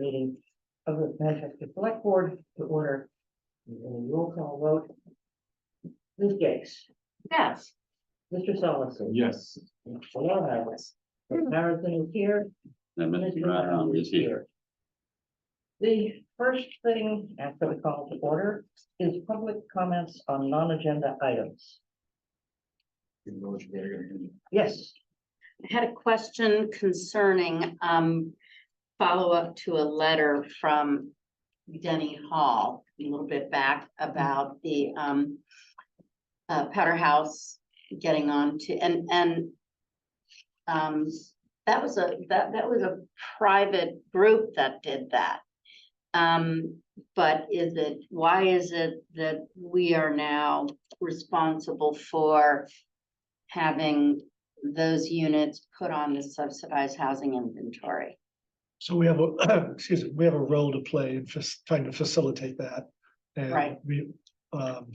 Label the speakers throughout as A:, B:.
A: meeting of the Manchester Select Board to order. And a roll call vote. Ms. Gates,
B: Yes.
A: Mr. Solomon.
C: Yes.
A: Hello, Alice.
D: Hmm.
A: Marathon is here.
E: And Mr.
A: Mr.
E: Brown
A: Brown
E: is here.
A: The first thing after the call to order is public comments on non-agenda items. Yes,
B: I had a question concerning, um, follow-up to a letter from Denny Hall a little bit back about the, um, uh, Powder House getting on to, and, and, um, that was a, that, that was a private group that did that. Um, but is it, why is it that we are now responsible for having those units put on the subsidized housing inventory.
F: So we have a, excuse me, we have a role to play in fas- trying to facilitate that. And
B: Right.
F: We, um,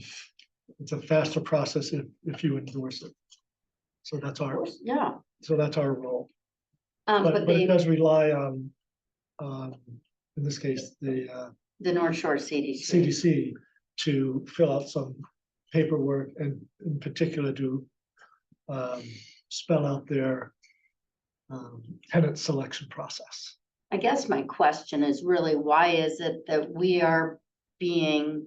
F: it's a faster process if, if you endorse it. So that's our,
B: Yeah,
F: so that's our role,
B: um,
F: but,
B: but
F: but it
B: the,
F: does rely on, um, in this case, the, uh,
B: the North Shore CDC.
F: CDC to fill out some paperwork and in particular to um, spell out their um, tenant selection process.
B: I guess my question is really, why is it that we are being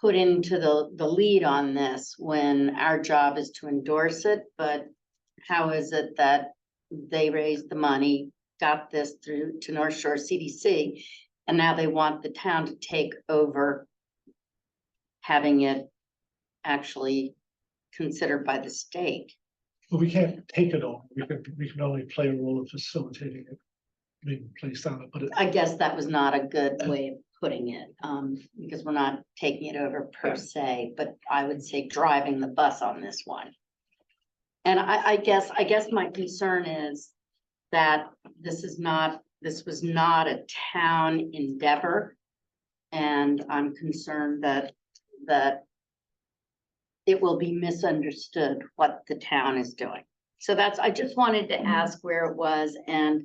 B: put into the, the lead on this when our job is to endorse it, but how is it that they raised the money, got this through to North Shore CDC, and now they want the town to take over having it actually considered by the state?
F: But we can't take it all. We can, we can only play a role in facilitating it being placed on it, but it-
B: I guess that was not a good way of putting it, um, because we're not taking it over per se, but I would say driving the bus on this one. And I, I guess, I guess my concern is that this is not, this was not a town endeavor. And I'm concerned that, that it will be misunderstood what the town is doing. So that's, I just wanted to ask where it was and,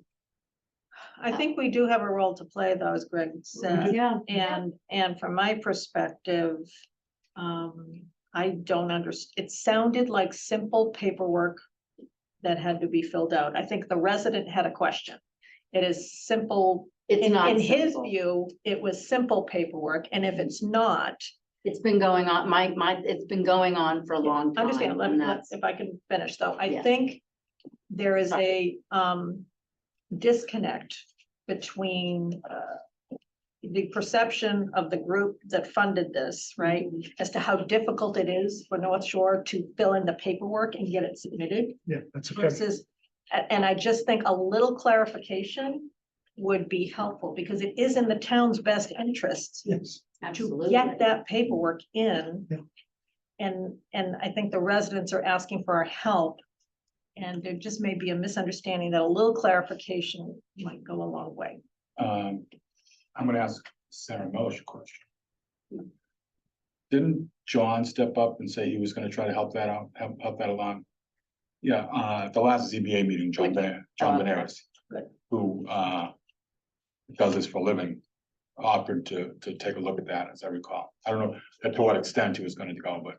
D: I think we do have a role to play though, as Greg said,
B: yeah,
D: and, and from my perspective. Um, I don't underst, it sounded like simple paperwork that had to be filled out. I think the resident had a question. It is simple,
B: it's
D: in,
B: not.
D: in his
B: simple.
D: view, it was simple paperwork, and if it's not,
B: It's been going on, my, my, it's been going on for a long time.
D: Understand, let,
B: and
D: let-
B: that's-
D: if I can finish though, I
B: Yeah.
D: think there is a, um, disconnect between, uh, the perception of the group that funded this, right, as to how difficult it is for North Shore to fill in the paperwork and get it submitted
F: yeah, that's okay.
D: versus, a- and I just think a little clarification would be helpful, because it is in the town's best interest
F: Yes,
D: to
B: Absolutely.
D: get that paperwork in.
F: Yeah.
D: And, and I think the residents are asking for our help. And there just may be a misunderstanding that a little clarification might go a long way.
C: Um, I'm gonna ask Sarah Melish a question. Didn't John step up and say he was gonna try to help that out, help, help that along? Yeah, uh, at the last ZBA meeting, John Ben, John
B: Uh,
C: Benares,
D: good.
C: who, uh, does this for a living, offered to, to take a look at that, as I recall. I don't know to what extent he was gonna go, but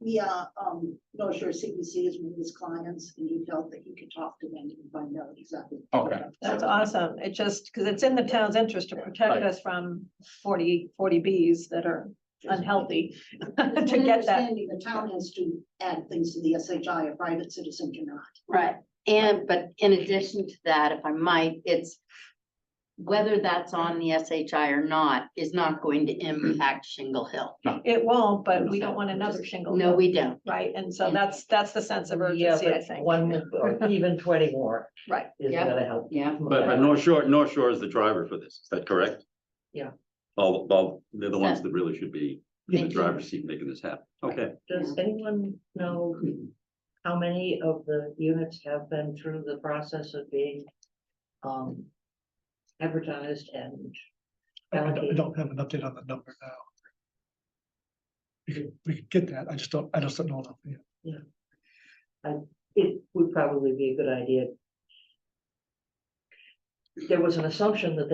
G: Yeah, um, no, sure, CBC is one of his clients, and he felt that he could talk to them and find out exactly.
C: Okay.
D: That's awesome. It just, because it's in the town's interest to protect us from 40 40 Bs that are unhealthy.
G: It's
D: To
G: my
D: get that,
G: understanding The town has to add things to the SHI, a private citizen cannot.
B: Right, and, but in addition to that, if I might, it's whether that's on the SHI or not is not going to impact Shingle Hill.
D: it won't, but we don't want another shingle.
B: No, we don't.
D: Right, and so that's, that's the sense of
A: yeah,
D: urgency, I
A: but
D: think.
A: one or even twenty more
D: Right.
A: is
B: Yeah.
A: gonna help.
B: Yeah.
E: But, but North Shore, North Shore is the driver for this, is that correct?
A: Yeah.
E: All, all, they're the ones that really should be in the driver's seat making this happen, okay.
A: Does anyone know how many of the units have been through the process of being um advertised and
F: I I don't I
A: allocated?
F: don't have an update on the number now. We could, we could get that, I just don't, I just don't know enough yet.
A: it would probably be a good idea there was an assumption that they